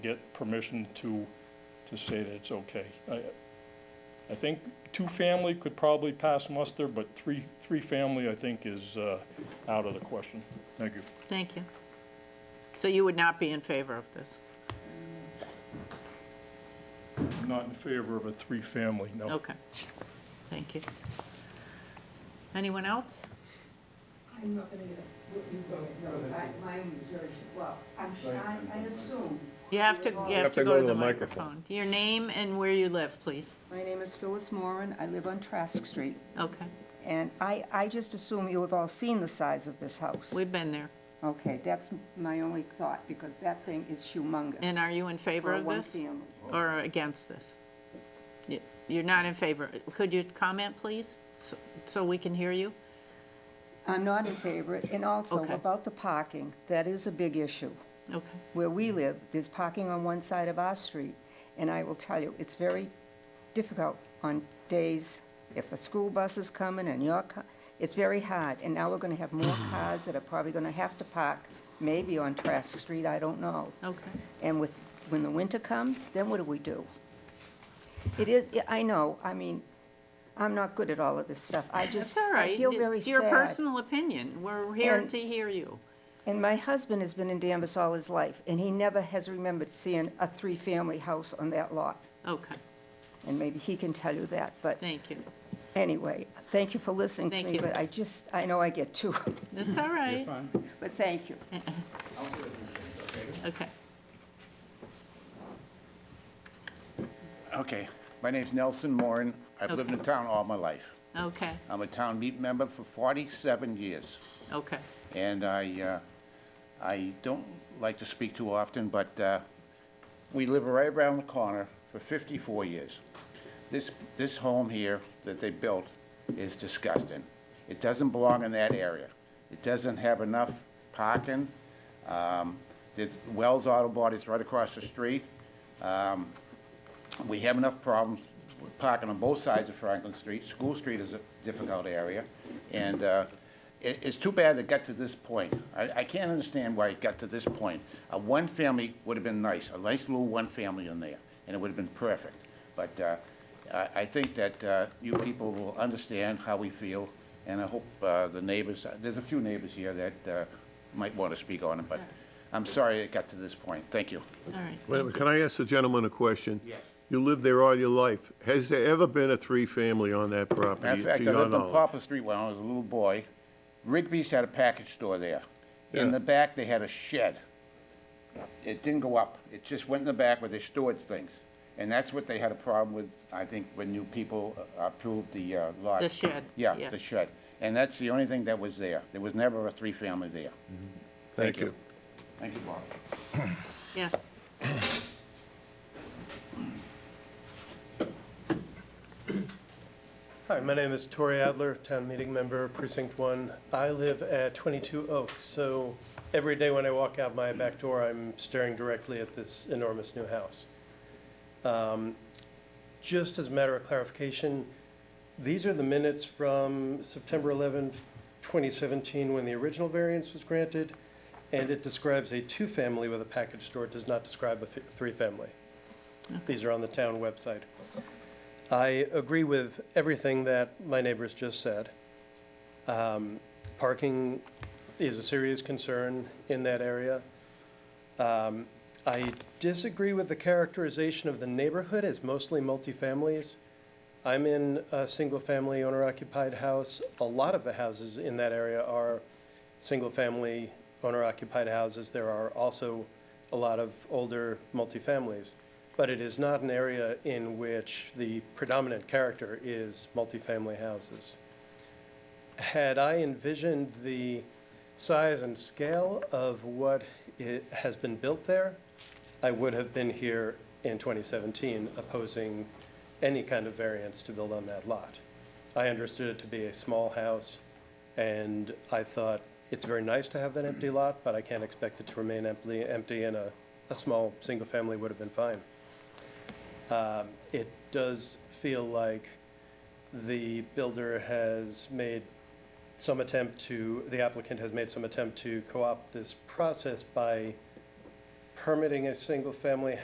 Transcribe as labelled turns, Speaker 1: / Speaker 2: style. Speaker 1: get permission to, to say that it's okay. I, I think two-family could probably pass muster, but three, three-family, I think, is, uh, out of the question. Thank you.
Speaker 2: Thank you. So you would not be in favor of this?
Speaker 1: I'm not in favor of a three-family, no.
Speaker 2: Okay. Thank you. Anyone else?
Speaker 3: I'm not gonna get what you vote, no, I, mine was very, well, I'm, sure- I, I assume.
Speaker 2: You have to, you have to go to the microphone. Your name and where you live, please.
Speaker 3: My name is Phyllis Moran, I live on Trask Street,
Speaker 2: Okay,
Speaker 3: and I, I just assume you have all seen the size of this house.
Speaker 2: we've been there.
Speaker 3: Okay, that's my only thought, because that thing is humongous.
Speaker 2: And are you in favor
Speaker 3: For a
Speaker 2: of this?
Speaker 3: one-family.
Speaker 2: Or against this? Y- You're not in favor. Could you comment, please, so- so we can hear you?
Speaker 3: I'm not in favor, and also
Speaker 2: Okay.
Speaker 3: about the parking, that is a big issue.
Speaker 2: Okay,
Speaker 3: Where we live, there's parking on one side of our street, and I will tell you, it's very difficult on days if a school bus is coming and your car, it's very hard, and now we're gonna have more cars that are probably gonna have to park, maybe on Trask Street, I don't know.
Speaker 2: okay.
Speaker 3: And with, when the winter comes, then what do we do? It is, yeah, I know, I mean, I'm not good at all of this stuff, I just,
Speaker 2: It's all
Speaker 3: I
Speaker 2: right.
Speaker 3: feel very sad.
Speaker 2: It's your personal opinion. We're here
Speaker 3: And-
Speaker 2: to hear you.
Speaker 3: And my husband has been in Danvers all his life, and he never has remembered seeing a three-family house on that lot.
Speaker 2: Okay,
Speaker 3: And maybe he can tell you that, but
Speaker 2: thank you.
Speaker 3: anyway, thank you for listening to
Speaker 2: Thank
Speaker 3: me,
Speaker 2: you.
Speaker 3: but I just, I know I get two,
Speaker 2: That's all right.
Speaker 3: but thank you.
Speaker 2: Okay.
Speaker 4: Okay, my name's Nelson Moran. I've lived in town all my life.
Speaker 2: Okay,
Speaker 4: I'm a town meet member for 47 years,
Speaker 2: okay,
Speaker 4: and I, uh, I don't like to speak too often, but uh, we live right around the corner for 54 years. This, this home here that they built is disgusting. It doesn't belong in that area. It doesn't have enough parking. Um, There's Wells Auto Bodies right across the street. Um, we have enough problems with parking on both sides of Franklin Street. School Street is a difficult area, and uh, it- it's too bad it got to this point. I I can't understand why it got to this point. A one-family would have been nice, a nice little one-family in there, and it would have been perfect. But uh, I I think that uh, you people will understand how we feel, and I hope uh, the neighbors, there's a few neighbors here that uh, might want to speak on it, but I'm sorry it got to this point. Thank you.
Speaker 2: all right.
Speaker 5: Wait a minute, can I ask the gentleman a question? Yes. You lived there all your life. Has there ever been a three-family on that
Speaker 4: Matter
Speaker 5: property,
Speaker 4: of
Speaker 5: to
Speaker 4: fact, I
Speaker 5: your
Speaker 4: lived on
Speaker 5: knowledge?
Speaker 4: Poplar Street when I was a little boy. Rigby's had a package store there.
Speaker 5: Yeah.
Speaker 4: In the back, they had a shed. It didn't go up. It just went in the back where they stored things. And that's what they had a problem with, I think, when new people uh, approved the uh, lot.
Speaker 2: The shed, yeah.
Speaker 4: Yeah, the shed. And that's the only thing that was there. There was never a three-family there.
Speaker 5: Thank you.
Speaker 4: Thank you, Bob.
Speaker 2: Yes.
Speaker 6: Hi, my name is Tori Adler, town meeting member, precinct one. I live at 22 Oak, so every day when I walk out my back door, I'm staring directly at this enormous new house. Um, Just as a matter of clarification, these are the minutes from September 11, 2017, when the original variance was granted, and it describes a two-family with a package store. It does not describe a fi- three-family. These are on the town website. I agree with everything that my neighbors just said. Um, Parking is a serious concern in that area. Um, I disagree with the characterization of the neighborhood as mostly multifamilies. I'm in a single-family owner-occupied house. A lot of the houses in that area are single-family owner-occupied houses. There are also a lot of older multifamilies. But it is not an area in which the predominant character is multifamily houses. Had I envisioned the size and scale of what it has been built there, I would have been here in 2017 opposing any kind of variance to build on that lot. I understood it to be a small house, and I thought, it's very nice to have that empty lot, but I can't expect it to remain empty, empty, and a, a small, single-family would have been fine. Um, It does feel like the builder has made some attempt to, the applicant has made some attempt to co-opt this process by permitting a single-family